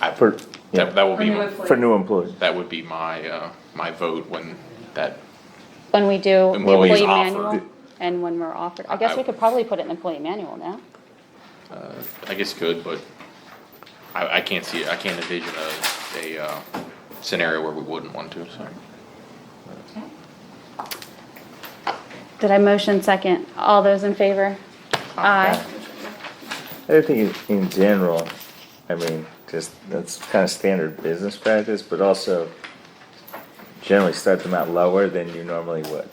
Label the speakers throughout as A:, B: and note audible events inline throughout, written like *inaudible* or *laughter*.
A: I-
B: for,
A: That,
B: yeah,
A: that will be,
C: For new employees.
B: for new employees.
A: that would be my, uh, my vote when that,
D: When we do
A: Employees
D: employee
A: offered.
D: manual and when we're offered, I guess we could probably put it in employee manual now.
A: I guess could, but I, I can't see, I can't envision a, a, uh, scenario where we wouldn't want to, so.
D: Did I motion second? All those in favor? Aye.
B: I think in- in general, I mean, just, that's kind of standard business practice, but also generally start them out lower than you normally would.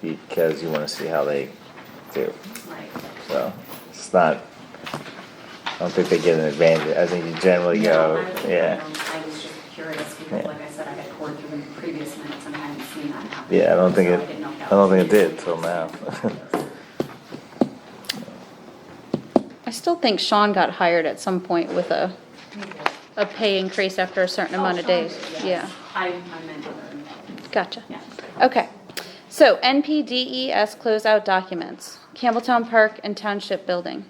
B: Because you wanna see how they do,
C: Right.
B: so it's not, I don't think they get an advantage, I think you generally go,
C: No, I don't
B: yeah.
C: know. I was just curious because
B: uh, Yeah.
C: like I said, I had poured through the previous minutes and I hadn't seen that happen.
B: Yeah, I don't think
C: So
B: it,
C: didn't know if that
B: I don't
C: was-
B: think it did till now.
C: *laughs*
B: *laughs*
D: I still think Sean got hired at some point with a, a pay increase after a certain amount of
C: Oh, Sean
D: days.
C: did, yes.
D: Yeah,
C: I, I meant other,
D: gotcha.
C: yeah.
D: Okay, so NPDES E closeout documents, Campbelltown Park and Township Building.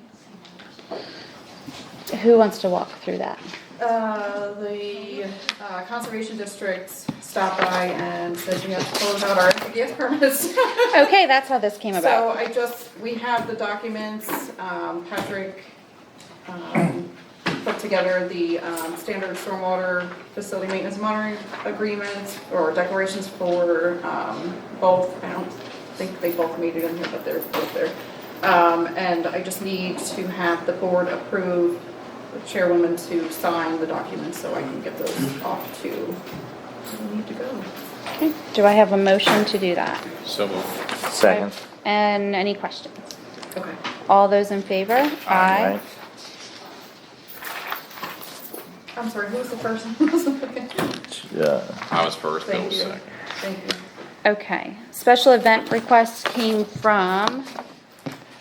D: Who wants to walk through *laughs* that?
E: Uh, the uh, conservation district stopped by and said we have to close out our *laughs* gift permits.
D: Okay, that's how this came
E: So
D: about.
E: I just, we have the documents, um, Patrick, um, put together the, um, standard stormwater facility maintenance monitoring agreements or declarations for, um, both, I don't think they both made it in here, but they're both there. Um, and I just need to have the board approve the chairwoman to sign the documents so I can get those off to, who we need to go.
D: Okay, Do I have a motion to do that?
A: So moved.
B: Second.
D: And any questions?
E: Okay.
D: All those in favor? Aye.
B: Right?
E: I'm sorry, who was the first? *laughs* one?
B: Yeah,
A: I was first, Bill
E: Thank
A: was
E: you.
A: second.
E: Thank you.
D: Okay, special event request came from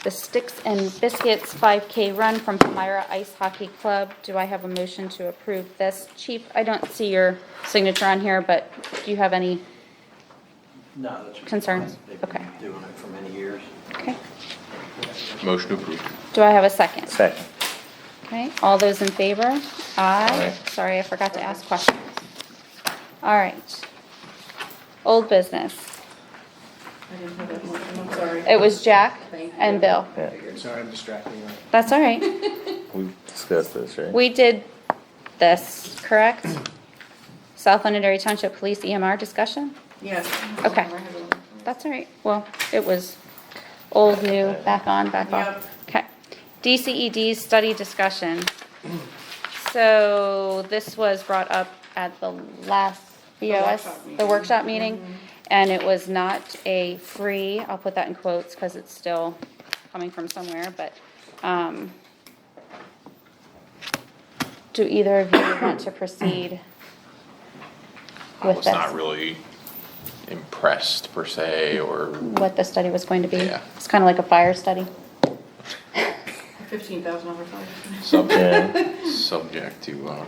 D: the Sticks and Biscuits 5K Run from Palmyra Ice Hockey Club. Do I have a motion to approve this? Chief, I don't see your signature on here, but do you have any?
F: No, that's.
D: Concerns?
F: They've been
D: Okay.
F: Doing it for many years.
D: Okay,
A: Motion approved.
D: do I have a second?
B: second.
D: Okay, all those in favor? Aye.
A: Aye.
D: Sorry, I forgot to ask questions. All right. Old business.
E: I didn't have that motion, I'm sorry.
D: It was Jack
E: Thank
D: and
E: you.
D: Bill.
B: Yeah,
F: Sorry, I'm distracting you.
D: That's all right.
E: *laughs*
B: we discussed this, right?
D: We did this, correct? South London Dairy Township Police EMR discussion?
E: Yes.
D: Okay.
E: I have it.
D: That's all right. Well, it was old, new, back on, back off. Okay. DCED study discussion. So this was brought up at the last BOS,
E: workshop
D: the
E: meeting. Mm-hmm.
D: workshop meeting. And it was not a free, I'll put that in quotes because it's still coming from somewhere, but, um, do either of you want to
E: *coughs*
D: proceed
A: I
D: with
A: was
D: this?
A: not really impressed per se, or
D: What the study was going to be?
A: Yeah.
D: It's kind of like a fire study.
E: Fifteen thousand dollars.
A: subject,
B: Yeah,
A: subject to, uh,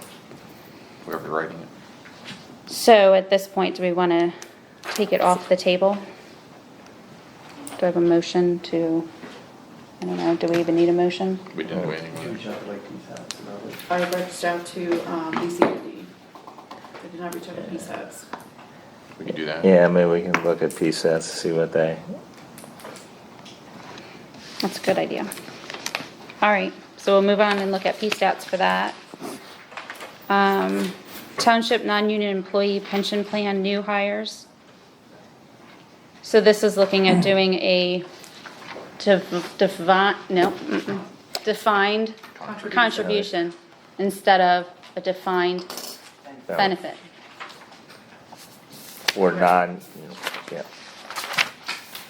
A: whoever writing it.
D: So at this point, do we want to take it off the table? Do I have a motion to, I don't know, do we even need a motion?
A: We didn't do anything.
F: Huge out like two thousand dollars.
E: I reached out to, um, DCFD. I did not reach out to PSATs.
A: We can do that.
B: yeah, maybe we can look at PSATs, see what they,
D: That's a good idea. All right, so we'll move on and look at P stats for that. Um, Township non-union employee pension plan, new hires. So this is looking at doing a divine, no, mm-mm, defined contribution instead of a defined
B: No.
D: benefit.
B: were non, yeah.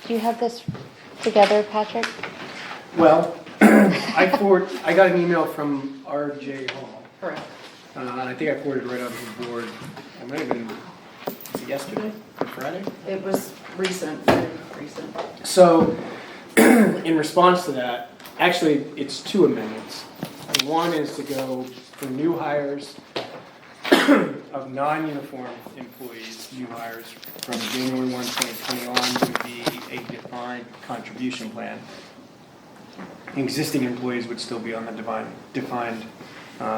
D: Do you have this together, Patrick?
G: Well, *clears throat* I forward, I got an email from RJ Hall,
E: Correct.
G: uh, and I think I forwarded it right onto the board. It might have been, was it yesterday or Friday?
E: It was recent, very recent.
G: So, *clears throat* in response to that, actually, it's two amendments. One is to go for new hires of non-uniform employees, new hires from January 1, 2020 on would be a defined contribution plan. Existing employees would still be on the divine, defined